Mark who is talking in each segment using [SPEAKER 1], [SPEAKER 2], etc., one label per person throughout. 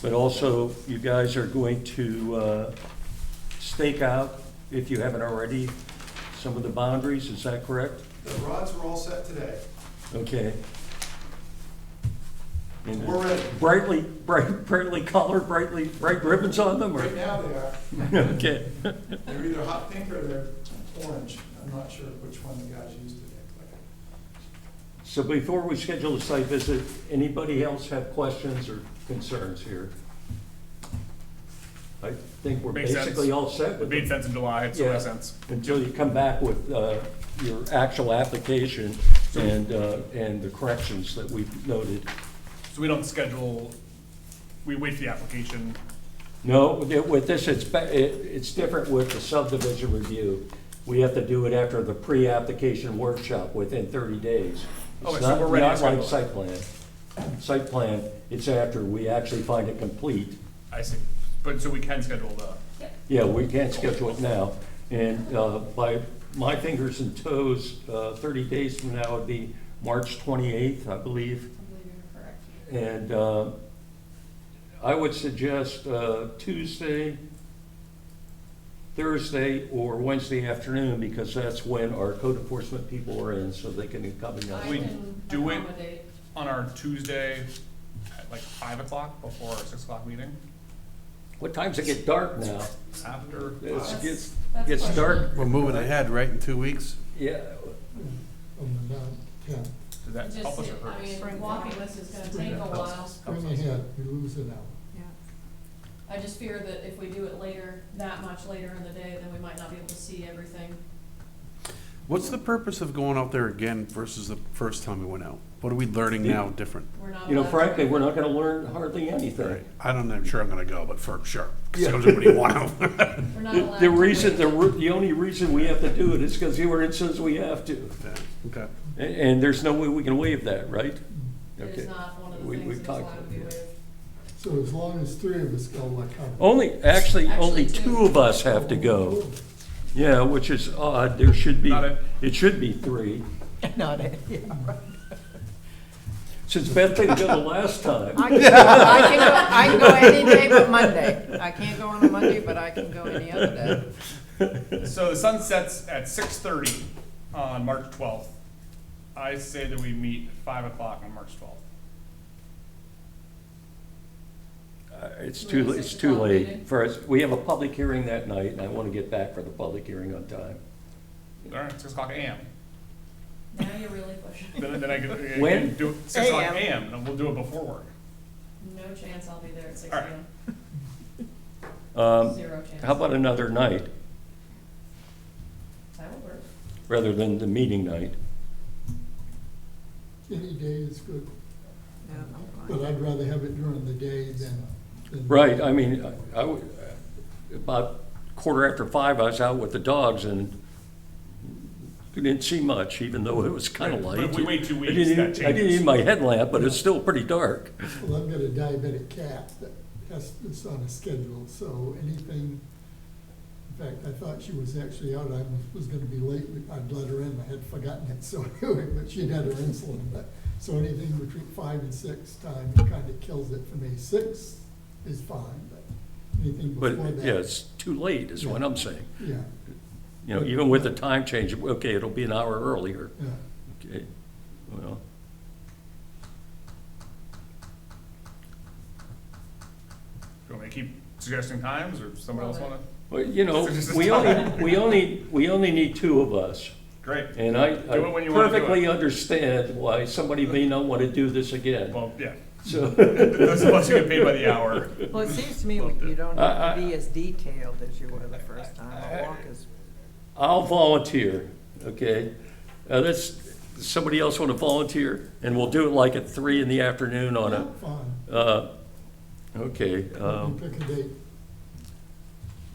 [SPEAKER 1] But also, you guys are going to uh, stake out, if you haven't already, some of the boundaries, is that correct?
[SPEAKER 2] The rods were all set today.
[SPEAKER 1] Okay. And
[SPEAKER 2] We're ready.
[SPEAKER 1] Brightly, bright, brightly colored, brightly, bright ribbons on them,
[SPEAKER 2] Right
[SPEAKER 1] or?
[SPEAKER 2] now they are.
[SPEAKER 1] Okay.
[SPEAKER 2] They're either hot pink or they're orange. I'm not sure which one the guys used today.
[SPEAKER 1] So before we schedule the site visit, anybody else have questions or concerns here? I think we're
[SPEAKER 3] Makes sense.
[SPEAKER 1] basically all set
[SPEAKER 3] It
[SPEAKER 1] with
[SPEAKER 3] made
[SPEAKER 1] the
[SPEAKER 3] sense in July, it still makes
[SPEAKER 1] Yeah.
[SPEAKER 3] sense.
[SPEAKER 1] until you come back with uh, your actual application and, uh, and the corrections that we've noted.
[SPEAKER 3] So we don't schedule, we wait for the application.
[SPEAKER 1] No, with this, it's, ba- it- it's different with the subdivision review. We have to do it after the pre-application workshop within 30 days.
[SPEAKER 3] Okay,
[SPEAKER 1] It's
[SPEAKER 3] Oh, so
[SPEAKER 1] not-
[SPEAKER 3] we're ready to
[SPEAKER 1] Not like
[SPEAKER 3] schedule it.
[SPEAKER 1] site plan. Site plan, it's after we actually find it complete.
[SPEAKER 3] I see. But, so we can schedule the,
[SPEAKER 1] Yeah, we can't schedule it now. And uh, by my fingers and toes, uh, 30 days from now would be March 28th, I believe.
[SPEAKER 4] I believe you're correct.
[SPEAKER 1] And uh, I would suggest uh, Tuesday, Thursday, or Wednesday afternoon, because that's when our code enforcement people are in, so they can come and
[SPEAKER 4] I
[SPEAKER 3] We
[SPEAKER 1] out.
[SPEAKER 4] can
[SPEAKER 3] do it-
[SPEAKER 4] accommodate.
[SPEAKER 3] on our Tuesday at like five o'clock before our six o'clock meeting,
[SPEAKER 1] What times it get dark now?
[SPEAKER 3] after.
[SPEAKER 1] It's-
[SPEAKER 4] That's-
[SPEAKER 1] gets-
[SPEAKER 4] that's
[SPEAKER 1] gets dark.
[SPEAKER 4] questionable.
[SPEAKER 5] We're moving ahead, right, in two weeks?
[SPEAKER 1] Yeah,
[SPEAKER 6] on the ninth, tenth.
[SPEAKER 3] Did that help
[SPEAKER 4] Just,
[SPEAKER 3] us or
[SPEAKER 4] I
[SPEAKER 3] hurt us?
[SPEAKER 4] mean, walking this is gonna take a while.
[SPEAKER 6] Spring ahead, we lose an hour.
[SPEAKER 4] I just fear that if we do it later, that much later in the day, then we might not be able to see everything.
[SPEAKER 5] What's the purpose of going out there again versus the first time we went out? What are we learning now different?
[SPEAKER 4] We're not.
[SPEAKER 1] you know,
[SPEAKER 4] allowed to-
[SPEAKER 1] frankly, we're not gonna learn hardly anything.
[SPEAKER 5] I don't know, I'm sure I'm gonna go, but for sure. Because everybody want out.
[SPEAKER 4] We're not
[SPEAKER 1] The
[SPEAKER 4] allowed.
[SPEAKER 1] the
[SPEAKER 4] to
[SPEAKER 1] reason,
[SPEAKER 4] wait.
[SPEAKER 1] the, ru- the only reason we have to do it is because the ordinance says we have to.
[SPEAKER 5] Yeah, Okay.
[SPEAKER 1] A- And there's no way we can waive that, right?
[SPEAKER 4] It
[SPEAKER 1] Okay.
[SPEAKER 4] is not one of the
[SPEAKER 1] We-
[SPEAKER 4] things
[SPEAKER 1] we've
[SPEAKER 4] that's
[SPEAKER 1] talked
[SPEAKER 4] allowed to
[SPEAKER 1] about
[SPEAKER 4] be
[SPEAKER 1] it,
[SPEAKER 4] waived.
[SPEAKER 6] So as long as three of us go, like. I'm-
[SPEAKER 1] Only, actually, only
[SPEAKER 4] Actually, two.
[SPEAKER 1] two of us have to go. Yeah, which is odd, there should be,
[SPEAKER 3] Not it.
[SPEAKER 1] it should be three. Since Beth didn't go the last time,
[SPEAKER 7] I can, I can go, I can go any day but Monday. I can't go on a Monday, but I can go any other day.
[SPEAKER 3] So the sun sets at six thirty on March twelfth. I say that we meet at five o'clock on March twelfth.
[SPEAKER 1] Uh, it's too,
[SPEAKER 4] Wait,
[SPEAKER 1] it's
[SPEAKER 4] six
[SPEAKER 1] too
[SPEAKER 4] o'clock
[SPEAKER 1] late
[SPEAKER 4] meeting?
[SPEAKER 1] for us, we have a public hearing that night, and I want to get back for the public hearing on time.
[SPEAKER 3] All right, six o'clock AM.
[SPEAKER 4] Now you're really pushing.
[SPEAKER 3] Then, then I can, I can
[SPEAKER 1] When?
[SPEAKER 3] do it, six o'clock
[SPEAKER 7] AM.
[SPEAKER 3] AM, and we'll do it before work.
[SPEAKER 4] No chance I'll be there at six
[SPEAKER 3] All right.
[SPEAKER 4] AM.
[SPEAKER 1] Um,
[SPEAKER 4] Zero chance.
[SPEAKER 1] How about another night,
[SPEAKER 4] That would work.
[SPEAKER 1] rather than the meeting night?
[SPEAKER 6] Any day is good,
[SPEAKER 7] Yeah, I'm fine.
[SPEAKER 6] but I'd rather have it during the day than. than-
[SPEAKER 1] Right, I mean, I- I, would- uh, about quarter after five, I was out with the dogs and didn't see much, even though it was kind of
[SPEAKER 3] Right,
[SPEAKER 1] light.
[SPEAKER 3] but if we wait two
[SPEAKER 1] I
[SPEAKER 3] weeks,
[SPEAKER 1] didn't-
[SPEAKER 3] that
[SPEAKER 1] I didn't
[SPEAKER 3] changes.
[SPEAKER 1] need my headlamp, but it's still pretty dark.
[SPEAKER 6] Well, I've got a diabetic cat that has, is on a schedule, so anything, in fact, I thought she was actually out, I was- was gonna be late, I'd let her in, I had forgotten it, so anyway, but she'd had her insulin, but, so anything between five and six time kinda kills it for me, six is fine, but anything
[SPEAKER 1] But,
[SPEAKER 6] before that.
[SPEAKER 1] yeah, it's too late, is what I'm saying.
[SPEAKER 6] Yeah,
[SPEAKER 1] You know, even with the time change, okay, it'll be an hour earlier.
[SPEAKER 6] yeah,
[SPEAKER 1] Okay, well.
[SPEAKER 3] Do you want me to keep suggesting times, or somebody else wanna?
[SPEAKER 1] Well, you know, we only, we only, we only need two of us.
[SPEAKER 3] Great.
[SPEAKER 1] And I I
[SPEAKER 3] Do it when you wanna do it.
[SPEAKER 1] perfectly understand why somebody may not want to do this again.
[SPEAKER 3] Well, yeah,
[SPEAKER 1] So,
[SPEAKER 3] those of us who get paid by the hour.
[SPEAKER 7] Well, it seems to me you don't
[SPEAKER 1] I-
[SPEAKER 7] have to be as detailed as you were the first time. A walk is,
[SPEAKER 1] I'll volunteer, okay? Uh, that's, somebody else want to volunteer? And we'll do it like at three in the afternoon on a,
[SPEAKER 6] fine,
[SPEAKER 1] uh, okay. um,
[SPEAKER 6] you pick a date,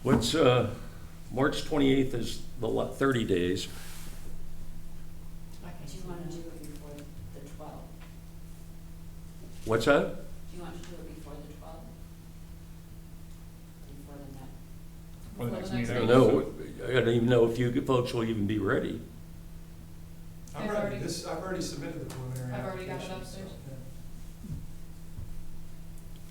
[SPEAKER 1] What's, uh, March twenty-eighth is the la- thirty days.
[SPEAKER 4] I
[SPEAKER 8] Do
[SPEAKER 4] can't
[SPEAKER 8] you want to do it before the 12?
[SPEAKER 1] What's that?
[SPEAKER 8] Do you want to do it before the 12? Before the
[SPEAKER 3] For
[SPEAKER 8] night?
[SPEAKER 3] the next
[SPEAKER 1] I
[SPEAKER 3] meeting.
[SPEAKER 1] don't know, I don't even know if you folks will even be ready.
[SPEAKER 2] I'm
[SPEAKER 4] I've
[SPEAKER 2] ready.
[SPEAKER 4] already-
[SPEAKER 2] This, I've already submitted the preliminary
[SPEAKER 4] I've already
[SPEAKER 2] application.
[SPEAKER 4] got it upstairs.
[SPEAKER 2] so-